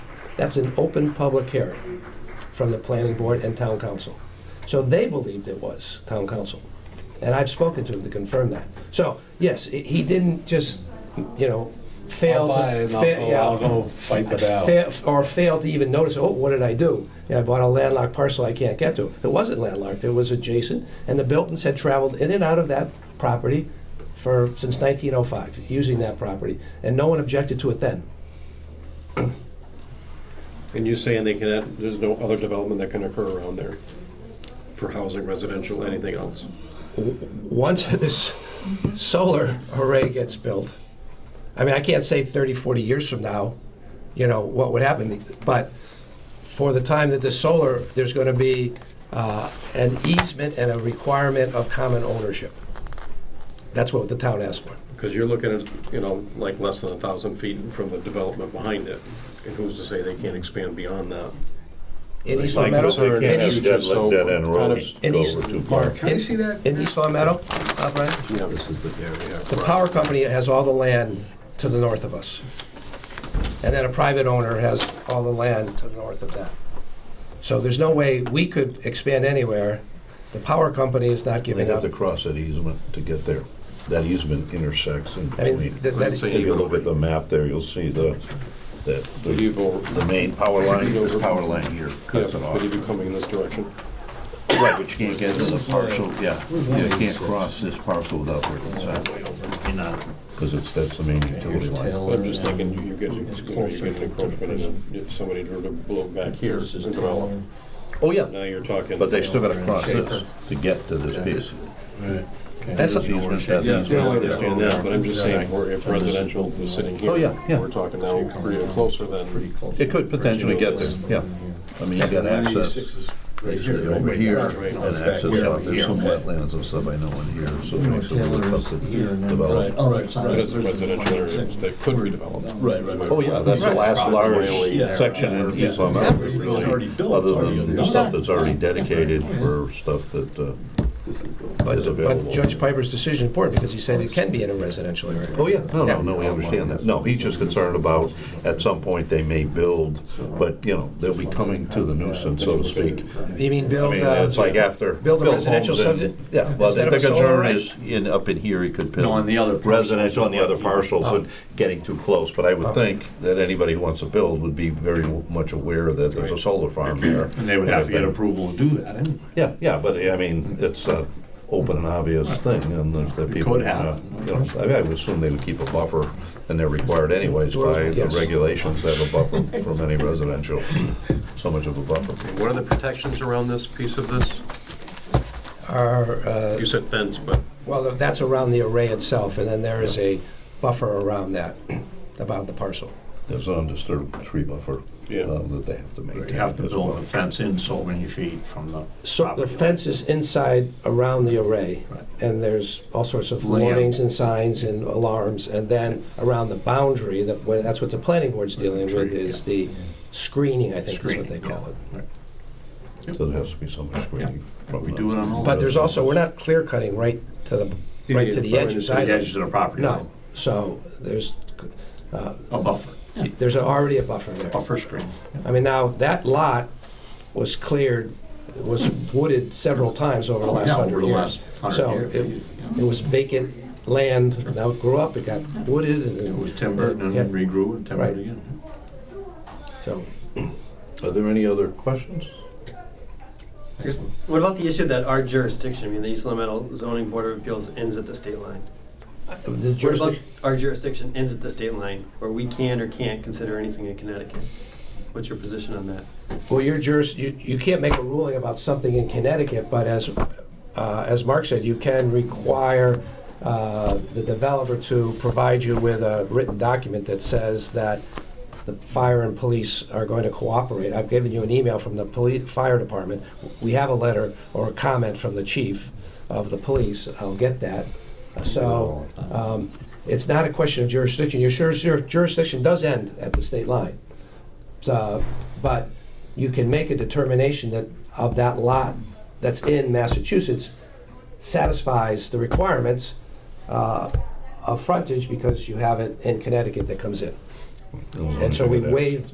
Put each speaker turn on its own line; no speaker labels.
That's an open public hearing from the planning board and town council. So they believed it was town council. And I've spoken to him to confirm that. So, yes, i- he didn't just, you know, fail
I'll
to...
buy it and I'll
fa-
go-
yeah.
I'll go fight the battle.
Fail- Or fail to even notice, oh, what did I do? Yeah, I bought a landlocked parcel I can't get to. It wasn't landlocked, it was adjacent, and the Biltons had traveled in and out of that property for, since 1905, using that property, and no one objected to it then.
And you're saying they can, there's no other development that can occur around there for housing, residential, anything else?
once this solar array gets built, I mean, I can't say 30, 40 years from now, you know, what would happen, but for the time that the solar, there's going to be uh, an easement and a requirement of common ownership. That's what the town asked for.
Because you're looking at, you know, like less than a thousand feet from the development behind it. And who's to say they can't expand beyond that?
In East Long
Like
Meadow?
concern
In
is
East-
that- just so
Dead
kind
end
of-
roads
and
go
he's-
over too far.
Mark, can I see that?
In East Long Meadow, uh, Brian?
Yeah.
This is the area.
The power company has all the land to the north of us. And then a private owner has all the land to the north of that. So there's no way we could expand anywhere. The power company is not
They
giving
have
up.
to cross that easement to get there. That easement intersects in
I mean,
between.
that- that-
So-
If you look at the map there, you'll see the, that,
Would you
the
go,
the main power line, the power line here cuts it
yeah, would
off.
you be coming in this direction?
Right, but you can't get into the parcel, yeah. You can't cross this parcel without working south. Because it's, that's the main utility line.
But I'm just thinking, you- you're getting, you know, you're getting encroachment, and if somebody were to blow back here and develop,
Oh, yeah.
now you're talking.
But they still gotta cross this to get to this piece.
That's
This
a-
easement, that
Yeah,
easement.
I understand that, but I'm just saying, for- if residential was sitting here.
Oh, yeah, yeah.
We're talking now, we're even closer than,
It could potentially get there, yeah. I mean, you got access basically over here,
Right.
and access out, there's some wetlands and stuff I know in here, so it makes it a little tough to develop.
Oh.
but it's a residential area that could redevelop.
Right, right, right.
Oh, yeah, that's the last large
Yeah.
section in East Long
Yeah,
Meadow,
it's really already built,
other
it's
than the
already-
stuff that's already dedicated for stuff that uh, is
But but
available.
Judge Piper's decision is important because he said it can be in a residential area.
Oh, yeah, no, no, no, we understand that. No, he's just concerned about, at some point, they may build, but, you know, they'll be coming to the nuisance, so to speak.
You mean build,
I mean,
uh,
it's like after.
build a
built
residential
homes
subdi-
and- Yeah, well,
instead
the
of a solar
concern
array.
is, in, up in here, he could build.
No, on the other parcels. Oh.
Residential on the other parcels and getting too close, but I would think that anybody who wants to build would be very much aware that there's a solar farm there.
And they would have to
if
get
they-
approval to do that anyway.
Yeah, yeah, but I mean, it's an open and obvious thing, and if the people.
could happen.
you know, I mean, I would assume they would keep a buffer, and they're required anyways by the
Yes.
regulations that have a buffer from any residential, so much of a buffer.
What are the protections around this piece of this?
are, uh,
You said fence, but
well, that's around the array itself, and then there is a buffer around that, about the parcel.
There's an undisturbed tree buffer
Yeah.
um, that they have to maintain.
You have to
as
build
well.
the fence in so many feet from the
So the
property.
fence is inside around the array,
Right.
and there's all sorts of
Layout.
warnings and signs and alarms, and then around the boundary, that, well, that's what the planning board's dealing with,
Tree,
is the screening, I think is what
Screening,
they call it.
yeah.
So there has to be some screening. from
We
the-
do it on all.
But there's also, we're not clear cutting right to the, right to the edges
The
either.
edges of the property. line.
No, so there's, uh,
A buffer,
there's already a buffer there.
buffer screen.
I mean, now, that lot was cleared, was wooded several times over the last
Yeah,
hundred
over the
years.
last 100
So
years.
it, it was vacant land, now it grew up, it got wooded, and
It was timbered and
Yeah.
then regrew and timbered
Right.
again.
So,
Are there any other questions?
I guess, what about the issue that our jurisdiction, I mean, the East Long Zoning Board of Appeals ends at the state line?
the
What about
jurisdiction,
our jurisdiction ends at the state line, where we can or can't consider anything in Connecticut? What's your position on that?
well, your juris, you, you can't make a ruling about something in Connecticut, but as, uh, as Mark said, you can require, uh, the developer to provide you with a written document that says that the fire and police are going to cooperate. I've given you an email from the police, fire department. We have a letter or a comment from the chief of the police. I'll get that. So, um, it's not a question of jurisdiction. Your juris- your jurisdiction does end at the state line. So, but you can make a determination that of that lot that's in Massachusetts satisfies the requirements, uh, of frontage because you have it in Connecticut that comes in. And so we waived